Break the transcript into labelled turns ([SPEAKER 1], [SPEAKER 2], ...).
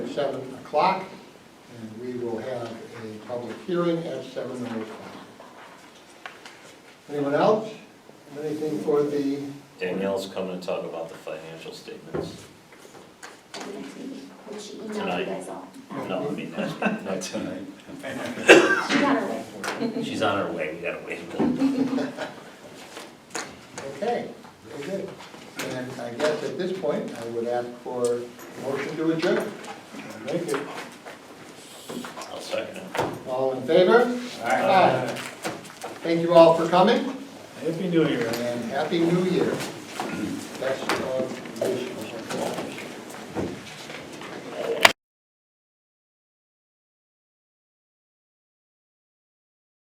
[SPEAKER 1] seven o'clock, and we will have a public hearing at seven oh five. Anyone else? Anything for the,
[SPEAKER 2] Danielle's coming to talk about the financial statements.
[SPEAKER 3] at the next meeting, which she emailed
[SPEAKER 2] Tonight.
[SPEAKER 3] you guys all.
[SPEAKER 2] No, I mean, that's, not tonight.
[SPEAKER 3] She got her way.
[SPEAKER 2] She's on her way, we gotta wait. until-
[SPEAKER 1] okay, very good. And I guess at this point, I would ask for a motion to adjourn. Make it.
[SPEAKER 2] I'll second it.
[SPEAKER 1] All in favor? Aye. Thank you all for coming,
[SPEAKER 4] Happy New Year.
[SPEAKER 1] and Happy New Year. Best of wishes.